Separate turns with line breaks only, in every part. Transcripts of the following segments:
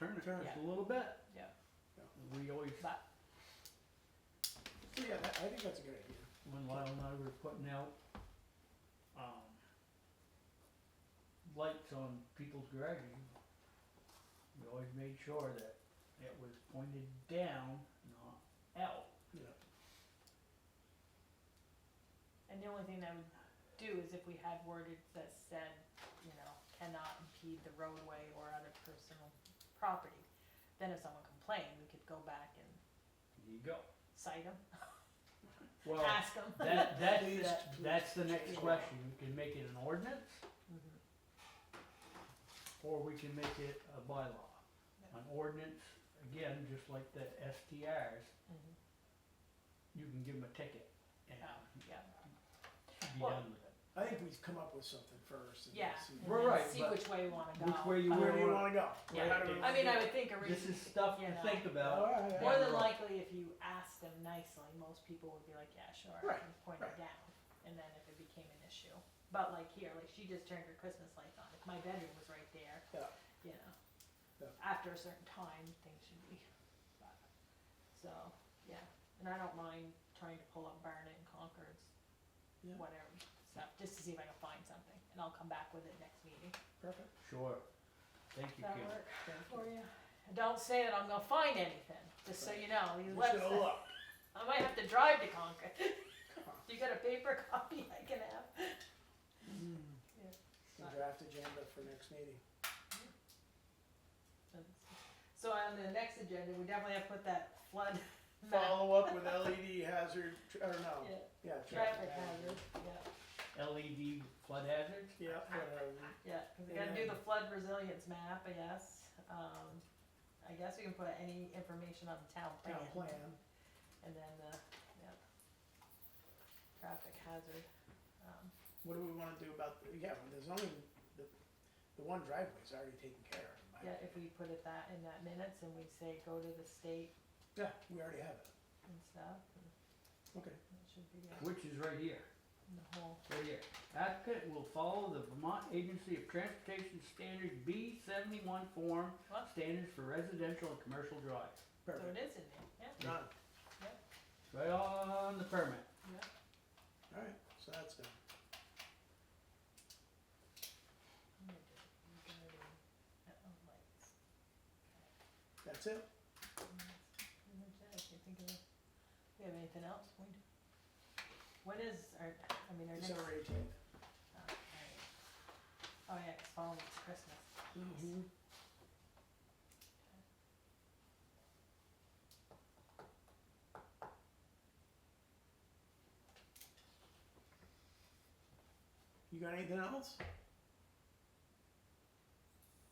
returns
Yeah.
a little bit.
Yeah.
We always,
But
So yeah, that, I think that's a good idea.
when Lyle and I were putting out, um, lights on people's garages, we always made sure that it was pointed down, not out.
and the only thing I would do is if we had worded that said, you know, cannot impede the roadway or other personal property, then if someone complained, we could go back and
There you go.
cite them,
Well,
ask them.
that, that
Please,
is,
please.
that's the next question. We can make it an ordinance
Mm-hmm,
or we can make it a bylaw. An ordinance, again, just like the STRs,
mm-hmm.
you can give them a ticket and
Um, Yeah,
be
Well,
done with it.
I think we've come up with something first. and
yeah,
see-
and
We're
then
right,
see
but
which way we wanna go. Um,
Which way you
Where do you
wanna,
wanna go?
Yeah.
How do we
I
I
wanna
mean, I
do
would think
this
originally,
is stuff
Yeah.
to think
it?
about.
Alright,
more
Yeah.
than likely, if you asked them nicely, most people would be like, yeah, sure,
Right,
and point it
right.
down, and then if it became an issue. But like here, like she just turned her Christmas lights on, if my bedroom was right there,
Yeah.
you know,
Yeah.
after a certain time, things should be, but, so, yeah. And I don't mind trying to pull up Barnet and Concord's,
Yeah.
whatever stuff, just to see if I can find something, and I'll come back with it next meeting.
perfect.
Sure. Thank you,
That
Kim.
work
Thank you.
for you? Don't say that I'm gonna find anything, just so you know, these
We'll
websites.
Show up.
I might have to drive to Concord. you got a paper copy I can have? Yeah.
The Draft agenda for next meeting.
So on the next agenda, we definitely have to put that flood map.
Follow up with LED hazard, tr- or no,
Yeah,
yeah.
traffic hazard, yeah,
LED E flood hazards?
Yeah, whatever.
yeah, 'cause we gotta do the flood resilience map, I guess. Um, I guess we can put any information on the town plan.
Town plan.
And then the, yeah. Traffic hazard, um,
What do we wanna do about, the- yeah, there's only, the, the one driveway's already taken care of. in my
yeah, if
opinion.
we put it that in that minutes and we say go to the state
Yeah, we already have it.
and stuff, and
Okay.
That should be it,
Which is right here,
in the whole,
right here. Applicant will follow the Vermont Agency of Transportation Standard B seventy-one form,
What?
standards for residential and commercial drives.
so
Perfect.
it is in there, yeah,
Done.
Right on the permit.
yeah.
Alright, so that's done.
I'm gonna do it. I'm gonna do that on uh, oh, lights.
That's it.
And that's pretty much it. I can't think of, we have anything else, When do- When is our, I mean, our next, oh,
December eighteenth.
alright. Oh, yeah, it's following it's Christmas,
Mm-hmm. You got anything else?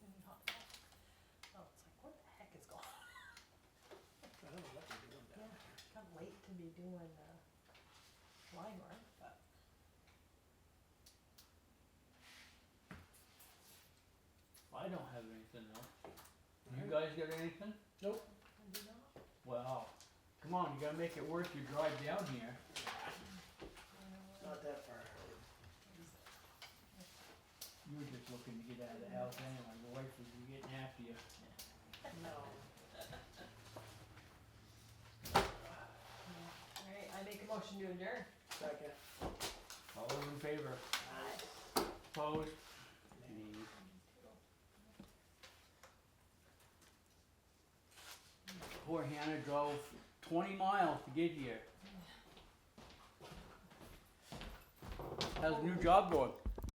Any hot dog? Oh, it's like, what the heck is going on,
I don't know what they're doing down
It's kind of late to be doing, uh, line work, but.
I don't have anything else. You
Alright.
guys got anything?
I do not.
Wow. Come on, you gotta make it worth your drive down here.
It's Not that far.
You were just looking to get out of the house anyway. Your wife was getting after you.
No.
Alright, I make a motion to adjourn.
Second.
All those in favor? Opposed? Nay. Poor Hannah drove twenty miles to get here. How's the new job going?